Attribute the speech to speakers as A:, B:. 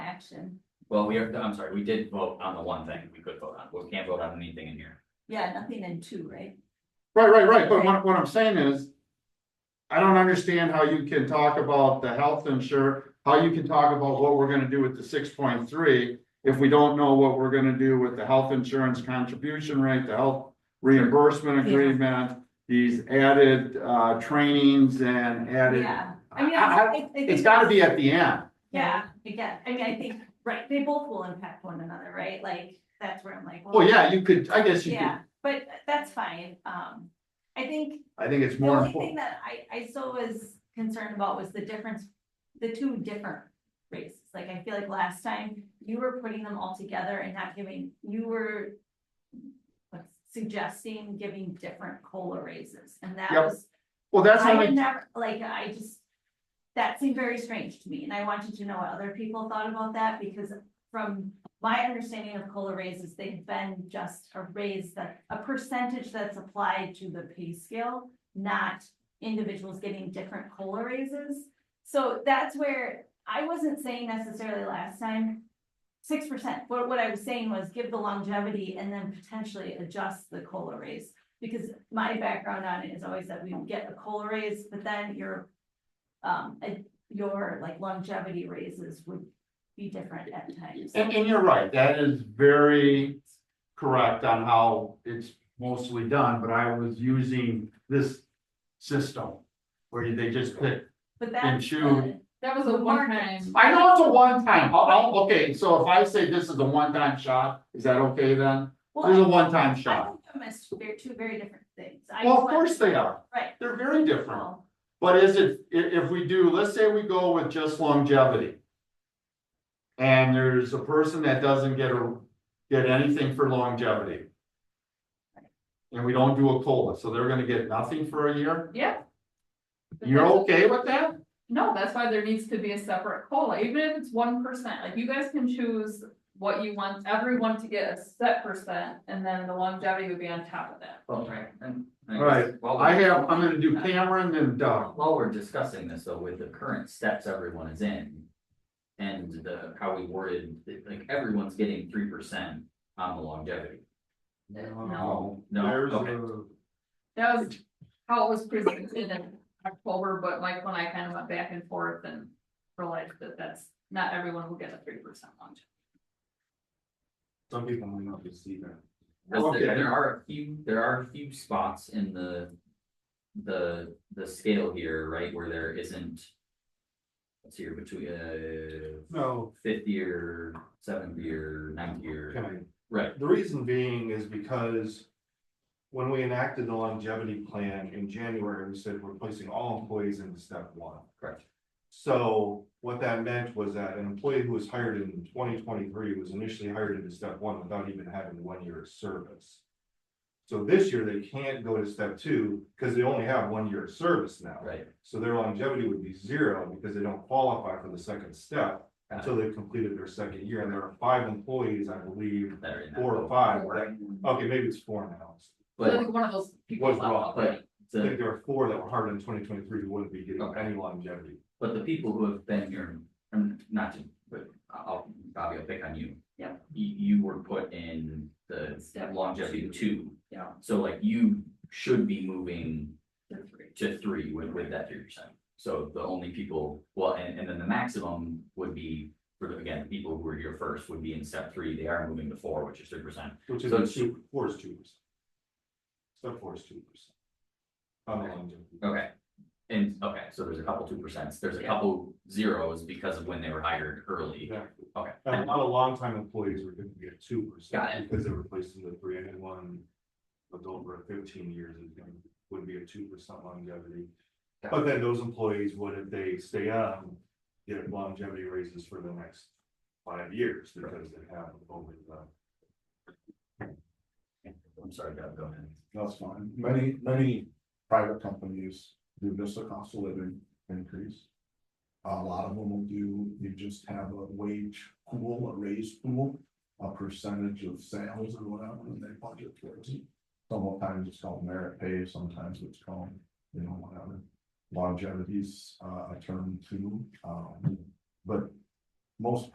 A: action.
B: Well, we are, I'm sorry, we did vote on the one thing we could vote on, we can't vote on anything in here.
A: Yeah, nothing in two, right?
C: Right, right, right, but what, what I'm saying is. I don't understand how you can talk about the health insurer, how you can talk about what we're gonna do with the six point three. If we don't know what we're gonna do with the health insurance contribution rate, the health reimbursement
A: Yeah.
C: agreement. These added, uh, trainings and added,
A: Yeah, I mean,
C: I- I-
A: I- I- I think
C: it's gotta be at the end.
A: Yeah, again, I mean, I think, right, they both will impact one another, right? Like, that's where I'm like.
C: Well, Oh, yeah, you could, I guess you could,
A: Yeah, but that's fine. Um, I think
C: I think it's
A: the
C: more
A: only thing
C: important.
A: that I, I still was concerned about was the difference, the two different races. Like, I feel like last time you were putting them all together and not giving, you were like, suggesting giving different COLA raises, and that
C: Yep.
A: was
C: Well, that's
A: I would
C: only,
A: never, like, I just, that seemed very strange to me, and I wanted to know what other people thought about that, because from my understanding of COLA raises, they've been just a raise that, a percentage that's applied to the pay scale, not individuals getting different COLA raises. So that's where, I wasn't saying necessarily last time, six percent, but what I was saying was give the longevity and then potentially adjust the COLA raise. Because my background on it is always that we get a COLA raise, but then your, um, a- your like longevity raises would be different at times.
C: and, and you're right, that is very correct on how it's mostly done, but I was using this system. Where they just pick,
A: But that's.
C: And shoe.
D: That was a
A: The
D: one
A: market.
D: time.
C: I know it's a one time, I'll- I'll- okay, so if I say this is a one time shot, is that okay then? There's a
A: Well,
C: one time
A: I I
C: shot,
A: think I'm as they're two very different things. I
C: well,
A: just
C: of
A: want-
C: course they are,
A: Right.
C: they're very different.
A: Well,
C: But is it, i- if we do, let's say we go with just longevity. And there's a person that doesn't get a, get anything for longevity. And we don't do a COLA, so they're gonna get nothing for a year,
D: Yeah. But
C: you're
D: that's-
C: okay with that?
D: No, that's why there needs to be a separate COLA, even if it's one percent, like you guys can choose what you want, everyone to get a set percent, and then the longevity would be on top of that.
B: Okay. And.
C: Alright, I have, I'm gonna do Cameron and uh, Doug,
B: While we're discussing this, though, with the current steps everyone is in. And the, how we worded, it, like, everyone's getting three percent on the longevity.
D: No.
B: No,
C: There's
B: okay,
C: a-
D: That was how it was presented in October, but Michael and I kind of went back and forth and realized that that's, not everyone will get a three percent longevity.
E: Some people might not be see that.
B: Because there,
C: Okay.
B: there are a few, there are a few spots in the. The, the scale here, right, where there isn't. Let's see, here, between, uh,
E: No,
B: fifth year, seventh year, ninth year,
E: can
B: right,
E: I, the reason being is because. When we enacted the longevity plan in January, we said we're placing all employees into step one.
B: correct,
E: So what that meant was that an employee who was hired in twenty twenty-three was initially hired into step one without even having one year of service. So this year, they can't go to step two because they only have one year of service now.
B: right,
E: So their longevity would be zero because they don't qualify for the second step
B: Got it.
E: until they've completed their second year. And there are five employees, I believe,
B: that are in that
E: four
B: boat.
E: or five. that- Okay, maybe it's four now.
D: So I
B: But,
D: think one of those people.
E: Was
D: left
E: wrong,
D: out,
E: but-
D: right?
E: I
B: the,
E: think there are four that were hired in twenty twenty-three who wouldn't be getting
B: Okay.
E: any longevity.
B: but the people who have been here, and not to, but I'll, Bobby, I'll pick on you.
A: Yeah.
B: You, you were put in the
D: Step
B: longevity two,
D: Yeah,
B: so like you should be moving
D: the three.
B: to three with, with that three percent. So the only people, well, and, and then the maximum would be, for the, again, the people who were here first would be in step three, they are moving to four, which is three percent.
E: Which is
B: So
E: a
B: it's-
E: two, four is two percent. Step four is two percent. On the
B: Okay.
E: longevity.
B: Okay, and, okay, so there's a couple two percents, there's a
D: Yeah.
B: couple zeros because of when they were hired early,
E: Exactly.
B: okay.
C: Um,
E: And a lot of longtime employees were gonna be at two
B: Got it.
E: percent because they were placed in the three and one. Adult over fifteen years is gonna, would be a two percent longevity.
B: Got
E: But then those employees, would if they stay on, get longevity raises for the next five years because they have uh, over the.
B: I'm sorry, Doug, go ahead.
F: That's fine. Many, many private companies do just a cost of living increase. A lot of them will do, you just have a wage pool, a raise pool, a percentage of sales or whatever, and they budget towards it. Sometimes it's called merit pay, sometimes it's called, you know, whatever. Longevity's uh, a term too, um, but most